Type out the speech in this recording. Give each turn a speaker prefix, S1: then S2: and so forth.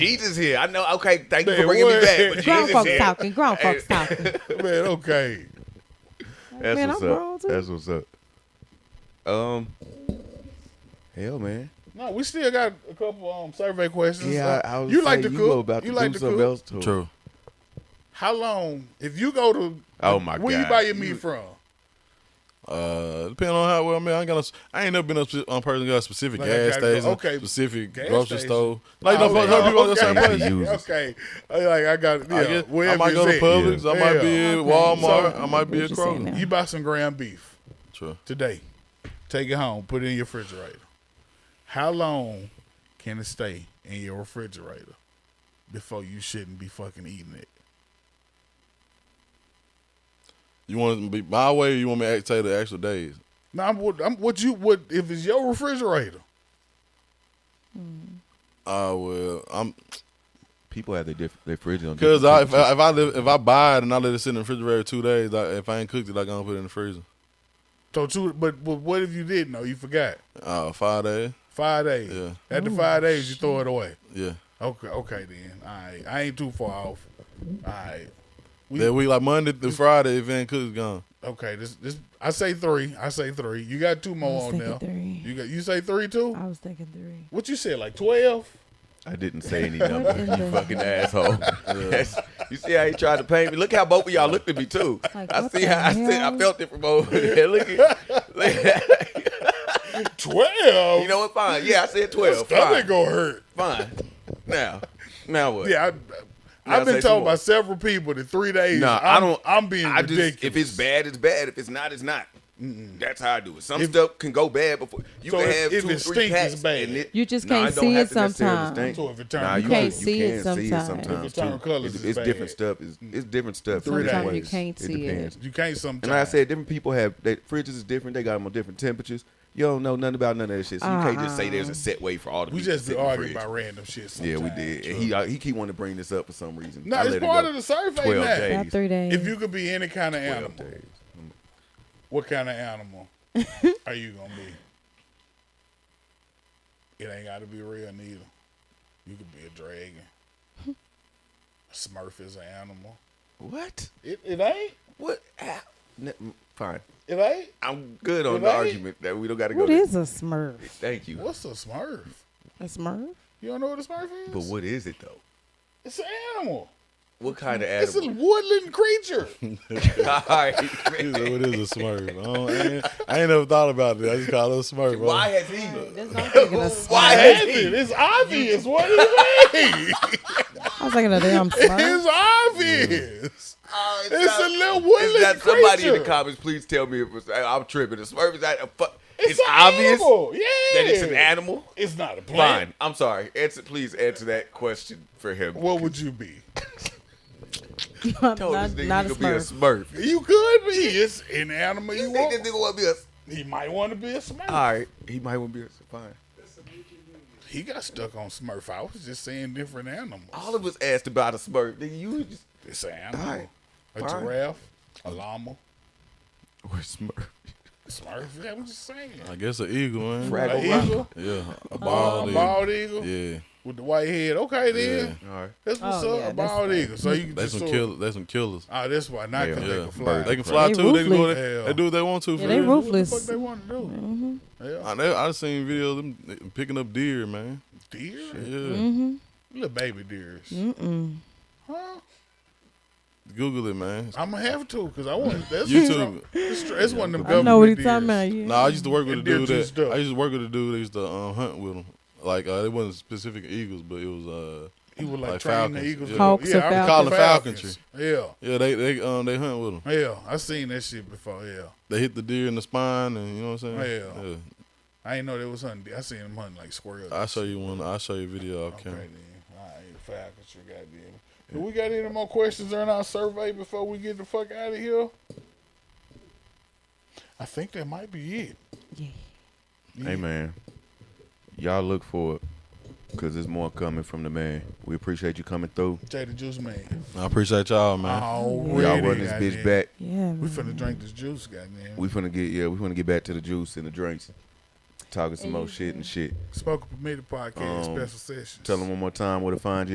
S1: Heath is here. I know. Okay, thank you
S2: Man,
S1: for bringing me
S2: what?
S1: back. But
S3: Grown
S1: Heath is
S3: folks
S1: here.
S3: talking. Grown
S1: Hey.
S3: folks talking.
S2: Man, okay.
S1: That's
S3: Man,
S1: what's
S3: I'm
S1: up.
S3: grown, too.
S1: That's what's up. Um, hell, man.
S2: No, we still got a couple um survey questions.
S1: Yeah,
S2: Uh,
S1: I, I was
S2: you like to
S1: saying,
S2: cook.
S1: you were about to
S2: you
S1: do
S2: like to
S1: something
S2: cook.
S1: else to it.
S4: True.
S2: How long? If you go to
S1: Oh my
S2: where
S1: god,
S2: you buy your meat from?
S4: Uh, depending on how well, man, I ain't gonna. I ain't never been up on person got a specific
S2: Like, I
S4: gas
S2: gotta go-
S4: station,
S2: okay,
S4: specific
S2: gas
S4: grocery
S2: station.
S4: store. Like no,
S2: Oh,
S4: fuck, no
S2: okay.
S4: people on the same
S1: Okay.
S4: place.
S1: Users.
S2: Okay, I, like I got. Yeah,
S4: I, guess, I
S2: wherever
S4: might
S2: it's
S4: go to
S2: at.
S4: Publix. I might be
S2: Yeah.
S4: at Walmart.
S3: So,
S4: I might be
S3: what
S4: at
S3: you saying
S4: Kroger.
S3: now?
S2: You buy some ground beef
S4: True.
S2: today. Take it home. Put it in your refrigerator. How long can it stay in your refrigerator before you shouldn't be fucking eating it?
S4: You want to be my way? Or you want me to say the actual days?
S2: Now, I'm, what- I'm, what you would if it's your refrigerator?
S4: Uh, well, I'm
S1: People have their diff- their fridges on.
S4: because I,
S1: different
S4: if I if I live, if I buy it and I let it sit in the refrigerator two days, I, if I ain't cooked it, I gonna put it in the freezer.
S2: So two, but, but what if you didn't know? You forgot.
S4: Uh, five days.
S2: Five days.
S4: Yeah.
S2: After five days, you throw it away.
S4: Yeah.
S2: Okay, okay then. All right. I ain't too far off. All right. We-
S4: That week, like Monday through Friday, if it ain't cooked, it's gone.
S2: Okay. This this I say three. I say three. You got two
S3: I
S2: more
S3: was
S2: on there.
S3: thinking three.
S2: You got you say three too?
S3: I was thinking three.
S2: What you said, like twelve?
S1: I didn't say any
S3: What
S1: number.
S3: in
S1: you
S3: the-
S1: fucking asshole. That's- you see how he tried to paint me. Look how both of y'all looked at me too.
S3: Like,
S1: I
S3: what
S1: see
S3: the
S1: how I, see, I
S3: hell?
S1: felt it from over there. Look at, look-
S2: Twelve?
S1: you know what? Fine. Yeah, I said
S2: Your
S1: twelve.
S2: stomach
S1: Fine.
S2: gonna hurt.
S1: Fine. Now, now what?
S2: Yeah, I,
S1: Now
S2: I've been
S1: say some
S2: told
S1: more.
S2: by several people that three days.
S1: No,
S2: I'm,
S1: I don't.
S2: I'm being
S1: I just-
S2: ridiculous.
S1: if it's bad, it's bad. If it's not, it's not. That's how I do it. Some stuff can go bad before you
S2: So
S1: can
S2: if-
S1: have
S2: if
S1: two,
S2: it
S1: three
S2: stink, it's
S1: packs.
S2: bad.
S1: and
S3: You just
S1: Nah,
S3: can't
S1: it don't
S3: see
S1: have
S3: it
S1: to necessarily
S3: sometimes.
S1: stink.
S2: So if it turn-
S1: Nah,
S2: You
S1: you can-
S2: can't
S3: see
S1: you can
S3: it
S1: see it
S3: sometimes.
S1: sometimes.
S2: If it turn
S1: too.
S2: colours,
S1: it's,
S2: it's
S1: it's different
S2: bad.
S1: stuff. It's, it's different stuff.
S2: Sometimes
S1: different
S2: you
S1: ways.
S3: can't see it.
S1: depends.
S2: you can't sometimes.
S1: And like I said, different people have their fridges is different. They got them on different temperatures. You don't know nothing about none of that shit, so you can't just say there's
S3: Uh-huh.
S1: a set way for all the.
S2: we
S1: meat to
S2: just
S1: sit
S2: be
S1: in the
S2: arguing
S1: fridge.
S2: about random shit.
S1: Yeah, we
S2: sometimes.
S1: did. And he uh, he keep wanting to bring this up for some reason.
S2: No,
S1: I
S2: it's
S1: let it
S2: part
S1: go.
S2: of the survey.
S1: 12
S2: now.
S1: days.
S3: About three days.
S2: If you could be any kind of animal,
S1: Twelve days.
S2: what kind of animal are you gonna be? It ain't gotta be real neither. You could be a dragon. A Smurf is an animal.
S1: What?
S2: It, it ain't.
S1: What? Ah, n- mm, Fine.
S2: It ain't.
S1: I'm good on
S2: Well,
S1: the
S2: that-
S1: argument that we don't got to go.
S3: What
S1: there.
S3: is a Smurf?
S1: Thank you.
S2: What's a Smurf?
S3: A Smurf?
S2: You don't know what a Smurf is?
S1: But what is it though?
S2: It's an animal.
S1: What kind of
S2: It's a
S1: animal?
S2: woodland creature.
S1: All right,
S4: It
S1: man.
S4: is a smurf. I, don't- I ain't, I ain't never thought about it. I just call it a smurf. Bro.
S1: Why has he?
S3: That's what I'm thinking. Of
S1: Why has he?
S2: That's it. It's obvious. What do you mean?
S3: I was thinking of damn Smurf.
S2: It's obvious.
S1: Oh, it's
S2: It's a
S1: not-
S2: little woodland
S1: Is that somebody in the
S2: creature.
S1: comments? Please tell me if it's, I- I'm tripping. The Smurf is that a fu-
S2: It's,
S1: It's,
S2: an
S1: obvious
S2: Animal. Yeah.
S1: that it's an animal.
S2: It's not a plant.
S1: Fine. I'm sorry. Answer, please answer that question for him.
S2: What would you be?
S3: not,
S1: Told this nigga
S3: not a
S1: he could be a
S3: Smurf.
S1: Smurf.
S2: You could be. It's an animal you
S1: You think
S2: want.
S1: this nigga want to be a?
S2: He might want to be a Smurf.
S1: All right, he might want to be a. Fine.
S2: He got stuck on Smurf. I was just saying different animals.
S1: All of us asked about a Smurf. Nigga, you just
S2: It's an animal.
S1: All right.
S2: A
S1: Fine.
S2: giraffe. A llama.
S1: or Smurf.
S2: Smurf. Yeah, I'm just saying.
S4: I guess an eagle, man.
S1: Fraggle
S2: An
S1: Rock.
S2: eagle.
S4: Yeah, a
S2: Oh, A
S4: bald eagle.
S2: bald eagle
S4: Yeah,
S2: with the white head. Okay, then.
S4: Yeah.
S1: All right.
S2: That's what's
S3: Oh,
S2: up. a
S3: yeah, that's
S2: bald
S3: fine.
S2: eagle. So you can
S4: they
S2: just
S4: some
S2: sort-
S4: killers. They some killers.
S2: Oh, that's why. Not
S1: Yeah.
S2: because they
S4: Yeah,
S2: can fly.
S4: they can fly too. They can go.
S3: ruthless.
S4: They, they do what they want to. For
S3: Yeah, they
S4: real.
S3: ruthless. Mm-hmm.
S2: What the fuck they want to do? Yeah.
S4: I, know- I seen videos of them picking up deer, man.
S2: Deer?
S4: Yeah,
S2: Mm-hmm. Little baby deers. Huh?
S4: Google it, man.
S2: I'm gonna have to because I want that's
S4: YouTube.
S2: It's, tr- it's one of them
S3: I
S2: government
S3: know what he's
S2: deers.
S3: talking about. Yeah.
S4: Nah, I used to work with a
S2: And deer
S4: dude
S2: juice
S4: that
S2: stuff.
S4: I used to work with a dude that used to um, hunt with him. Like uh, it wasn't specific eagles, but it was uh
S2: He would like,
S4: Like
S2: train
S4: falcons.
S2: the eagles.
S4: Yeah.
S3: Hawks or
S2: yeah, I
S3: Call
S4: it
S2: falcons.
S4: yeah they they um they hunt with them.
S2: Yeah, yeah. I seen that shit before. Yeah,
S4: They hit the deer in the spine, and you know what I'm saying.
S2: Oh, Yeah. I ain't know there was hunting. de- I seen them hunting like squirrels.
S4: I show you one. I will show you a video off
S2: Okay,
S4: camera.
S2: then. All right, falcons. You goddamn. Do we got any more questions during our survey before we get the fuck out of here? I think that might be it.
S3: Yeah.
S1: Hey man, y'all look for it because there's more coming from the man. We appreciate you coming through.
S2: Jada Juice Man.
S4: I appreciate y'all, man.
S2: Already,
S1: Y'all run this bitch
S2: goddamn.
S1: back.
S3: Yeah.
S2: We
S3: man.
S2: finna drink this juice, goddamn.
S1: We finna get yeah. We finna get back to the juice and the drinks, talking some more shit and shit.
S2: Spoken Permitted Podcast
S1: Um,
S2: special sessions.
S1: Tell them one more time where to find you.